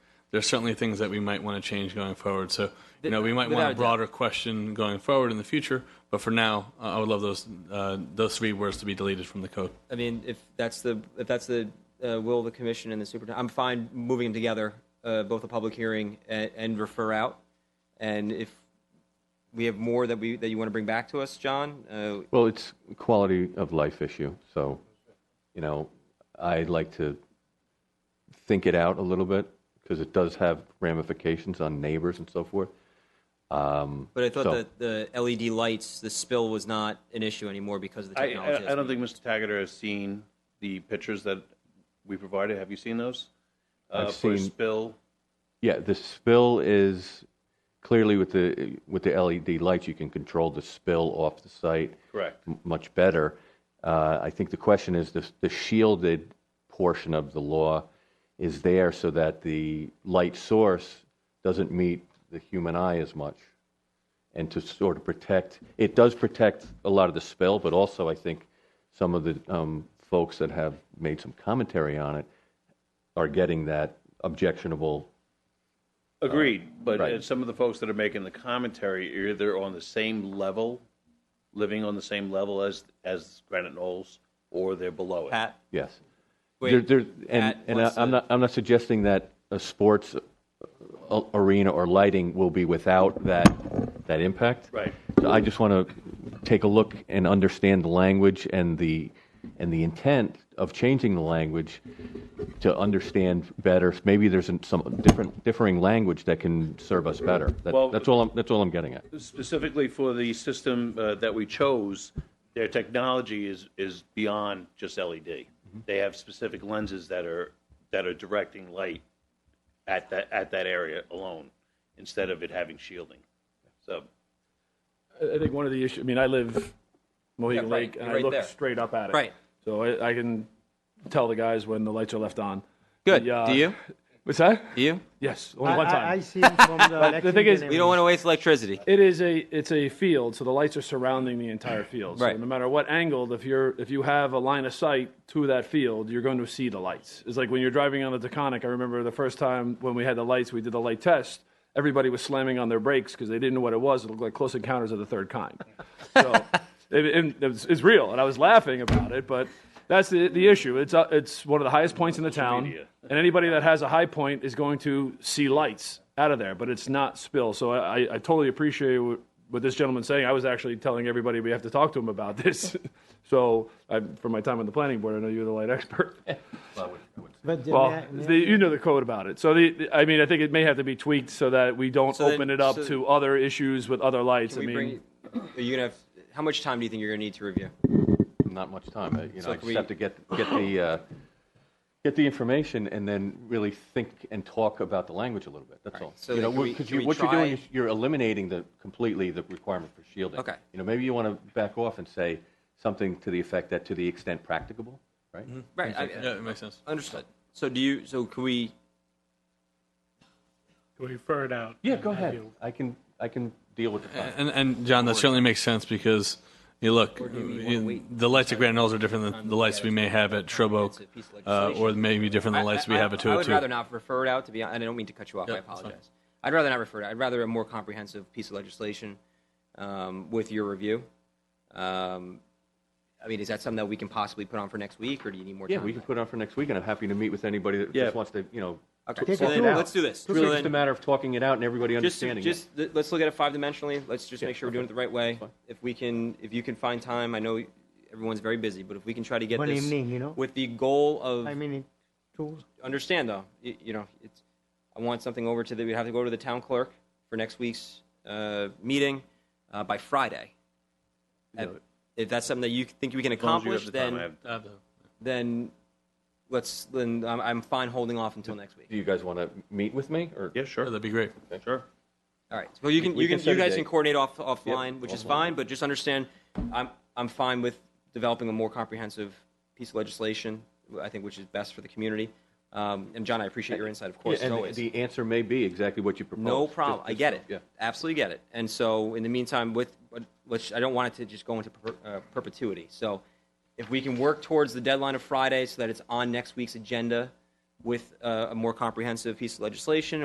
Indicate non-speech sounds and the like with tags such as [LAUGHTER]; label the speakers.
Speaker 1: there's certainly things that we might want to change going forward. So, you know, we might
Speaker 2: Without
Speaker 1: want
Speaker 2: a
Speaker 1: a
Speaker 2: doubt.
Speaker 1: broader question going forward in the future. But for now, uh, I would love those uh, those three words to be deleted from the code.
Speaker 2: I mean, if that's the, if that's the uh, will of the commission and the superintendent, I'm fine moving them together, uh, both a public hearing and, and refer out. And if we have more that we, that you want to bring back to us, John, uh,
Speaker 3: Well, it's a quality of life issue, so, you know, I'd like to think it out a little bit, because it does have ramifications on neighbors and so forth.
Speaker 2: but I thought
Speaker 3: So-
Speaker 2: that the LED lights, the spill was not an issue anymore because of the
Speaker 4: I,
Speaker 2: technology.
Speaker 4: I, I don't think Mr. Taggart has seen the pictures that we provided. Have you seen those? Uh,
Speaker 3: I've
Speaker 4: For
Speaker 3: seen-
Speaker 4: spill,
Speaker 3: Yeah, the spill is, clearly with the, with the LED lights, you can control the spill off the site.
Speaker 4: Correct.
Speaker 3: m- Much better. Uh, I think the question is, the the shielded portion of the law is there so that the light source doesn't meet the human eye as much, and to sort of protect, it does protect a lot of the spill, but also, I think, some of the um, folks that have made some commentary on it are getting that objectionable
Speaker 4: agreed, but
Speaker 3: right.
Speaker 4: uh, some of the folks that are making the commentary are either on the same level, living on the same level as, as Granite Knolls, or they're below it.
Speaker 2: Pat,
Speaker 3: Yes.
Speaker 2: Wait,
Speaker 3: There- there- and
Speaker 2: Pat
Speaker 3: and I,
Speaker 2: wants
Speaker 3: I'm
Speaker 2: to-
Speaker 3: not, I'm not suggesting that a sports a- arena or lighting will be without that, that impact.
Speaker 4: Right.
Speaker 3: So I just want to take a look and understand the language and the, and the intent of changing the language to understand better. Maybe there's some different, differing language that can serve us better. That-
Speaker 4: Well-
Speaker 3: That's all I'm, that's all I'm getting at.
Speaker 4: Specifically for the system uh, that we chose, their technology is, is beyond just LED. They have specific lenses that are, that are directing light at that, at that area alone, instead of it having shielding. So,
Speaker 5: I I think one of the issues, I mean, I live Mohegan
Speaker 2: Yeah, right.
Speaker 5: Lake, and
Speaker 2: You're
Speaker 5: I
Speaker 2: right
Speaker 5: look
Speaker 2: there.
Speaker 5: straight up at it.
Speaker 2: Right.
Speaker 5: So I, I can tell the guys when the lights are left on.
Speaker 2: Good.
Speaker 5: The, uh,
Speaker 2: Do you?
Speaker 5: What's that?
Speaker 2: Do you?
Speaker 5: Yes, only one
Speaker 6: I-
Speaker 5: time.
Speaker 6: I, I see him
Speaker 5: [LAUGHS]
Speaker 6: from the
Speaker 5: the thing is-
Speaker 6: Lexington
Speaker 5: We
Speaker 2: We don't want to waste electricity.
Speaker 5: it is a it's a field, so the lights are surrounding the entire field. So
Speaker 2: Right.
Speaker 5: no matter what angle, if you're if you have a line of sight to that field, you're going to see the lights. It's like when you're driving on the Taconic. I remember the first time when we had the lights, we did the light test. Everybody was slamming on their brakes because they didn't know what it was. It looked like Close Encounters of the Third Kind. So it, it, it's, it's real, and I was laughing about it, but. That's the, the issue. It's, uh, it's one of the highest points in the town.
Speaker 4: media.
Speaker 5: And anybody that has a high point is going to see lights out of there, but it's not spill. So I, I I totally appreciate what, what this gentleman's saying. I was actually telling everybody we have to talk to him about this. so I, from my time on the planning board, I know you're the light expert.
Speaker 6: But the-
Speaker 5: Well,
Speaker 6: may I- may I-
Speaker 5: the, you know the code about it. So the, the- I mean, I think it may have to be tweaked so that we don't
Speaker 2: So then-
Speaker 5: open it up
Speaker 2: so-
Speaker 5: to other issues with other lights. I
Speaker 2: We
Speaker 5: mean,
Speaker 2: bring, are you gonna have, how much time do you think you're gonna need to review?
Speaker 3: not much time. I, you know,
Speaker 2: So
Speaker 3: I
Speaker 2: can
Speaker 3: just
Speaker 2: we-
Speaker 3: have to get get the uh, get the information and then really think and talk about the language a little bit. That's all.
Speaker 2: So
Speaker 3: you
Speaker 2: then
Speaker 3: know,
Speaker 2: can we-
Speaker 3: because
Speaker 2: can
Speaker 3: you,
Speaker 2: we
Speaker 3: what you're doing
Speaker 2: try-
Speaker 3: is you're eliminating the completely the requirement for shielding.
Speaker 2: Okay.
Speaker 3: You know, maybe you want to back off and say something to the effect that to the extent practicable, right?
Speaker 2: Right, I-
Speaker 1: Yeah, it makes sense.
Speaker 2: understood. So do you, so can we,
Speaker 7: Can we refer it out?
Speaker 3: Yeah,
Speaker 7: and
Speaker 3: go
Speaker 7: have
Speaker 3: ahead.
Speaker 7: you-
Speaker 3: I can I can deal with the
Speaker 2: Uh,
Speaker 3: time.
Speaker 1: And, and John, that certainly makes sense because you look, you- the lights at Grand Knolls are different than the lights we may have at Shrub
Speaker 2: It's
Speaker 1: Oak,
Speaker 2: a piece of
Speaker 1: uh, or
Speaker 2: legislation.
Speaker 1: maybe different than the lights we
Speaker 2: I-
Speaker 1: have at
Speaker 2: I- I would
Speaker 1: 202.
Speaker 2: rather not refer it out, to be, hon- and I don't mean to cut you off, I
Speaker 1: Yeah, that's fine.
Speaker 2: apologize. I'd rather not refer it, out. I'd rather a more comprehensive piece of legislation um, with your review. Um, I mean, is that something that we can possibly put on for next week, or do you need more time?
Speaker 3: yeah, we can put it on for next week, and I'm happy to meet with anybody that
Speaker 4: Yeah.
Speaker 3: just wants to, you know,
Speaker 2: Okay, so
Speaker 6: it
Speaker 2: then,
Speaker 6: out.
Speaker 2: let's do this.
Speaker 3: it's
Speaker 2: So
Speaker 3: just a
Speaker 2: then-
Speaker 3: matter of talking it out and everybody
Speaker 2: Just,
Speaker 3: understanding it.
Speaker 2: just th- let's look at it five dimensionally. Let's just make sure we're doing it the right way. If we can, if you can find time, I know everyone's very busy, but if we can try to get
Speaker 6: One
Speaker 2: this
Speaker 6: evening, you know?
Speaker 2: with the goal of
Speaker 6: I mean, it, two,
Speaker 2: understand though, you, you know, it's I want something over to the we have to go to the town clerk for next week's uh, meeting uh, by Friday. And if that's something that you think we can
Speaker 4: as long as you
Speaker 2: accomplish,
Speaker 4: have the time,
Speaker 2: then
Speaker 4: I have-
Speaker 1: Uh, the-
Speaker 2: then let's then I'm, I'm fine holding off until next week.
Speaker 3: Do you guys want to meet with me or?
Speaker 4: Yeah,
Speaker 1: yeah,
Speaker 4: sure,
Speaker 1: That'd be great.
Speaker 4: sure.
Speaker 2: All right. Well, you can,
Speaker 3: We
Speaker 2: you
Speaker 3: can
Speaker 2: can,
Speaker 3: set
Speaker 2: you
Speaker 3: a
Speaker 2: guys
Speaker 3: date.
Speaker 2: can coordinate off, offline, which is
Speaker 3: offline.
Speaker 2: fine, but just understand, I'm, I'm fine with developing a more comprehensive piece of legislation, I think, which is best for the community. Um, and John, I appreciate your insight, of course,
Speaker 3: Yeah,
Speaker 2: as
Speaker 3: and
Speaker 2: always.
Speaker 3: The answer may be exactly what you proposed.
Speaker 2: no
Speaker 3: Just-
Speaker 2: problem. I
Speaker 3: just-
Speaker 2: get it.
Speaker 3: Yeah.
Speaker 2: Absolutely get it. And so, in the meantime, with but let's, I don't want it to just go into per, uh, perpetuity. So, if we can work towards the deadline of Friday so that it's on next week's agenda with uh, a more comprehensive piece of legislation